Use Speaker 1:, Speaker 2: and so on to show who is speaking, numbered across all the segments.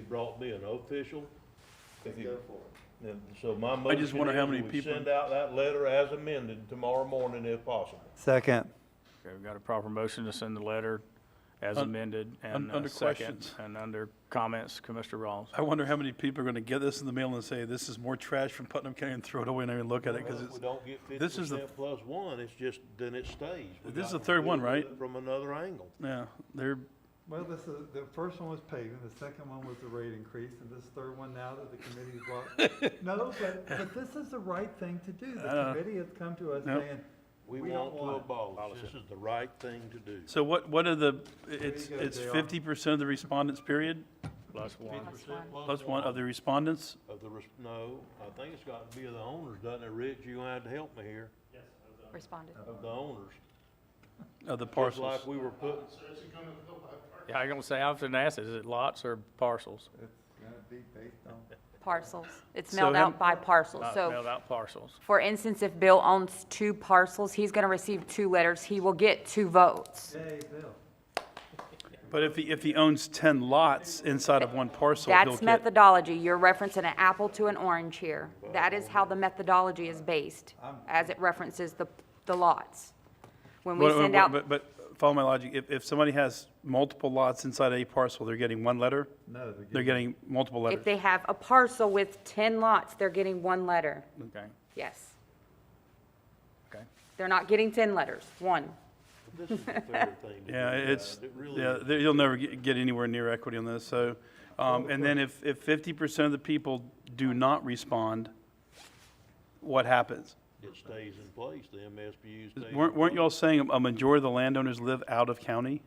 Speaker 1: brought me an official.
Speaker 2: Let's
Speaker 1: you-
Speaker 2: go for it.
Speaker 1: And so my
Speaker 3: I
Speaker 1: motion
Speaker 3: just wonder how
Speaker 1: is
Speaker 3: many
Speaker 1: we
Speaker 3: people-
Speaker 1: Send out that letter as amended tomorrow morning if possible.
Speaker 4: Second.
Speaker 5: Okay, we've got a proper motion to send the letter as
Speaker 3: Un-
Speaker 5: amended
Speaker 3: un-
Speaker 5: and a
Speaker 3: under
Speaker 5: second.
Speaker 3: questions.
Speaker 5: And under comments, Commissioner Rawls.
Speaker 3: I wonder how many people are gonna get this in the mail and say, this is more trash from Putnam County and throw it away and not even look at it,
Speaker 1: Well,
Speaker 3: cause
Speaker 1: If we
Speaker 3: it's,
Speaker 1: don't get fifty
Speaker 3: this is the-
Speaker 1: percent plus one, it's just, then it stays. We
Speaker 3: This is
Speaker 1: got
Speaker 3: the
Speaker 1: to
Speaker 3: third
Speaker 1: do
Speaker 3: one,
Speaker 1: it
Speaker 3: right?
Speaker 1: From another angle.
Speaker 3: yeah, they're,
Speaker 4: Well, this is, the first one was paving, the second one was the rate increase, and this third one now that the committee's brought. No, but, but this is the right thing to do. The
Speaker 3: Uh,
Speaker 4: committee has come to us
Speaker 3: no.
Speaker 4: saying,
Speaker 1: We
Speaker 4: We don't
Speaker 1: want to
Speaker 4: want it.
Speaker 1: abolish. This is the right thing to do.
Speaker 3: so what, what are the, it's,
Speaker 4: go,
Speaker 3: it's
Speaker 4: JR.
Speaker 3: fifty percent of the respondents, period?
Speaker 5: Plus one.
Speaker 1: 50%
Speaker 3: Plus one of the respondents?
Speaker 1: Of the, res- no, I think it's got to be of the owners, doesn't it, Rich? You gonna have to help me here,
Speaker 6: responded.
Speaker 1: of the owners.
Speaker 3: Of the
Speaker 1: Just
Speaker 3: parcels.
Speaker 1: like we were putting,
Speaker 5: Yeah, I gonna say, I often asked, is it lots or parcels?
Speaker 4: it's gonna be based on.
Speaker 6: Parcels. It's
Speaker 3: So
Speaker 6: mailed
Speaker 3: how m-
Speaker 6: out by parcel.
Speaker 5: Not
Speaker 6: So
Speaker 5: mailed out parcels.
Speaker 6: for instance, if Bill owns two parcels, he's going to receive two letters. He will get two votes.
Speaker 4: Yay, Bill.
Speaker 3: But if he, if he owns ten lots inside of one parcel, he'll
Speaker 6: That's
Speaker 3: get,
Speaker 6: methodology. You're referencing an apple to an orange here. That is how the methodology is based, as it references the, the lots. When we
Speaker 3: Wait, wait,
Speaker 6: send
Speaker 3: wait,
Speaker 6: out,
Speaker 3: but, but follow my logic, if, if somebody has multiple lots inside a parcel, they're getting one letter?
Speaker 4: No, they're
Speaker 3: They're getting multiple
Speaker 6: if
Speaker 3: letters?
Speaker 6: they have a parcel with 10 lots, they're getting one letter.
Speaker 5: Okay,
Speaker 6: Yes.
Speaker 5: okay.
Speaker 6: They're not getting 10 letters, one.
Speaker 1: this is the fair thing to do.
Speaker 3: Yeah, it's,
Speaker 1: guys. It really
Speaker 3: yeah,
Speaker 1: is.
Speaker 3: there- you'll never get, get anywhere near equity on this, so, um, and then if, if fifty percent of the people do not respond, what happens?
Speaker 1: It stays in place, the MSBU stays.
Speaker 3: Weren't, weren't y'all saying a majority of the landowners live out of county?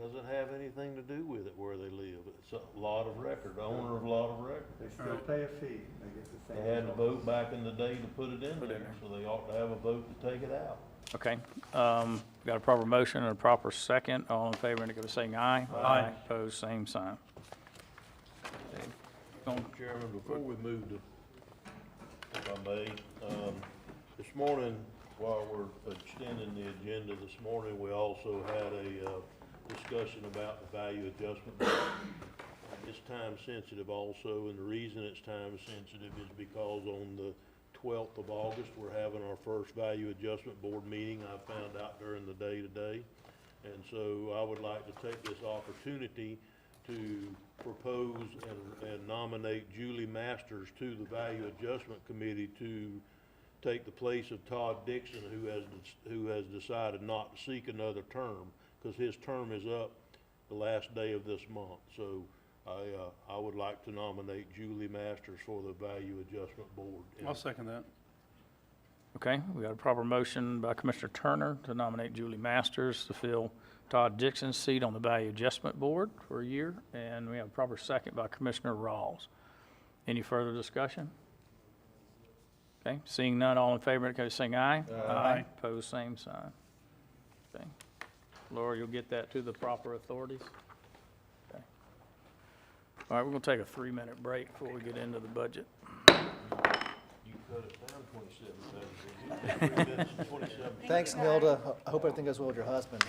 Speaker 1: Doesn't have anything to do with it where they live. It's a lot of record, owner of lot of record.
Speaker 4: They still pay a fee. They get the same.
Speaker 1: They had a vote back in the day to put it in there, so they ought to have a vote to take it out.
Speaker 5: Okay, um, got a proper motion and a proper second. All in favor, indicate by saying aye. Aye. Opposed, same sign.
Speaker 1: Chairman, before we move to, if I may, um, this morning, while we're extending the agenda this morning, we also had a, uh, discussion about the value adjustment. It's time sensitive also, and the reason it's time sensitive is because on the twelfth of August, we're having our first value adjustment board meeting. I found out during the day today. And so I would like to take this opportunity to propose and, and nominate Julie Masters to the Value Adjustment Committee to take the place of Todd Dixon, who has, who has decided not to seek another term, because his term is up the last day of this month. So I, uh, I would like to nominate Julie Masters for the Value Adjustment Board. And
Speaker 3: I'll second that.
Speaker 5: Okay, we got a proper motion by Commissioner Turner to nominate Julie Masters to fill Todd Dixon's seat on the Value Adjustment Board for a year, and we have a proper second by Commissioner Rawls. Any further discussion? Okay, seeing none, all in favor, indicate by saying aye. Aye. Pose same sign. Okay. Laura, you'll get that to the proper authorities? Okay. All right, we're gonna take a three-minute break before we get into the budget.
Speaker 1: You cut it down twenty-seven, seven, three minutes and twenty-seven.
Speaker 2: Thanks, Milda. I hope everything goes well with your husband.